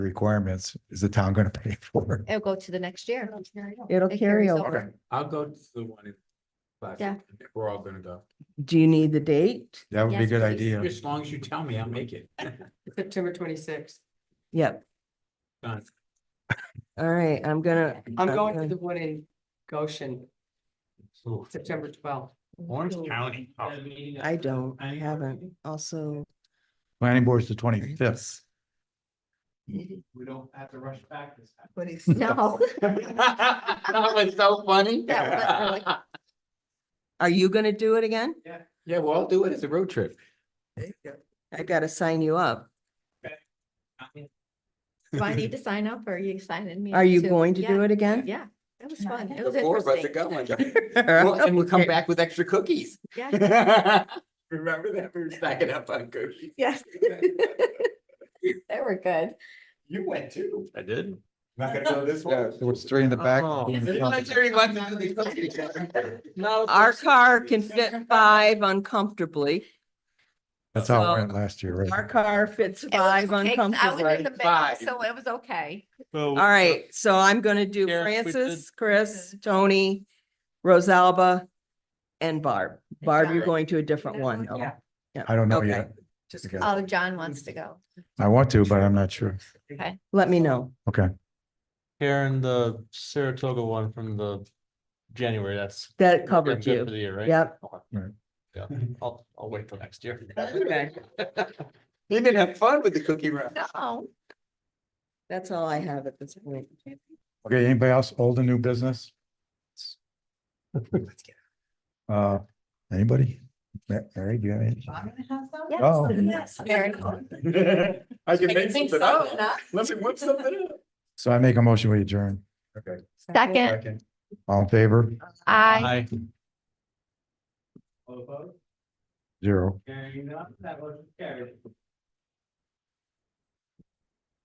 requirements, is the town gonna pay for it? It'll go to the next year. It'll It carry carries over. over. I'll go to the one in. Classic. Yeah. We're all gonna go. Do you need the date? That would be a Yes, good please. idea. As long as you tell me, I'll make it. September twenty-sixth. Yep. Done. All right, I'm gonna. I'm going to gonna- the one in Goshen, Ooh, September twelfth. Orange County. Oh, I don't, I haven't. Also, Planning board's the twenty-fifth. We don't have to rush back this time. But it's. No. That was so funny. That was are you gonna do it again? Yeah, well, I'll do it as a road trip. I gotta sign you up. Do I need to sign up or are you signing me? Are you too? going to Yeah, do it again? Yeah, it was fun. It was The four of us are interesting. going. Well, And we'll come back with extra cookies. Yeah, Remember that? We were stacking up on cookies. yes. They were good. You went too. I did. Not gonna go this Yeah, there was three in the back. Oh. No. Our car can fit five uncomfortably. That's how it went last year, Our right? car fits It was okay, five 'cause I was in uncomfortably. the middle, Five. so it was okay. All right, so I'm gonna do Karen, we did- Francis, Chris, Tony, Rosalba, and Barb. Barb, you're John. going to a different one. Yeah. okay. I don't know Okay. yet. Just Okay. Oh, John wants to go. I want to, but I'm not sure. let me know. Okay. Karen, the Saratoga one from the January, that's. That we're covered good For you. the year, right? Yep. Okay. Right. Yeah, I'll, I'll wait till next year. You didn't have fun with the cookie run. No. That's all I have at this point. Okay, anybody else, old and new business? Uh, anybody? Ma- Mary, do you have any? Yes. Oh. Yes. Very cool. I can make think something so, up. no? Let me whip something up. So I make a motion, we adjourn. Second, Second. All in favor? I. Hi. All opposed? Zero. Carrying up, that motion carried.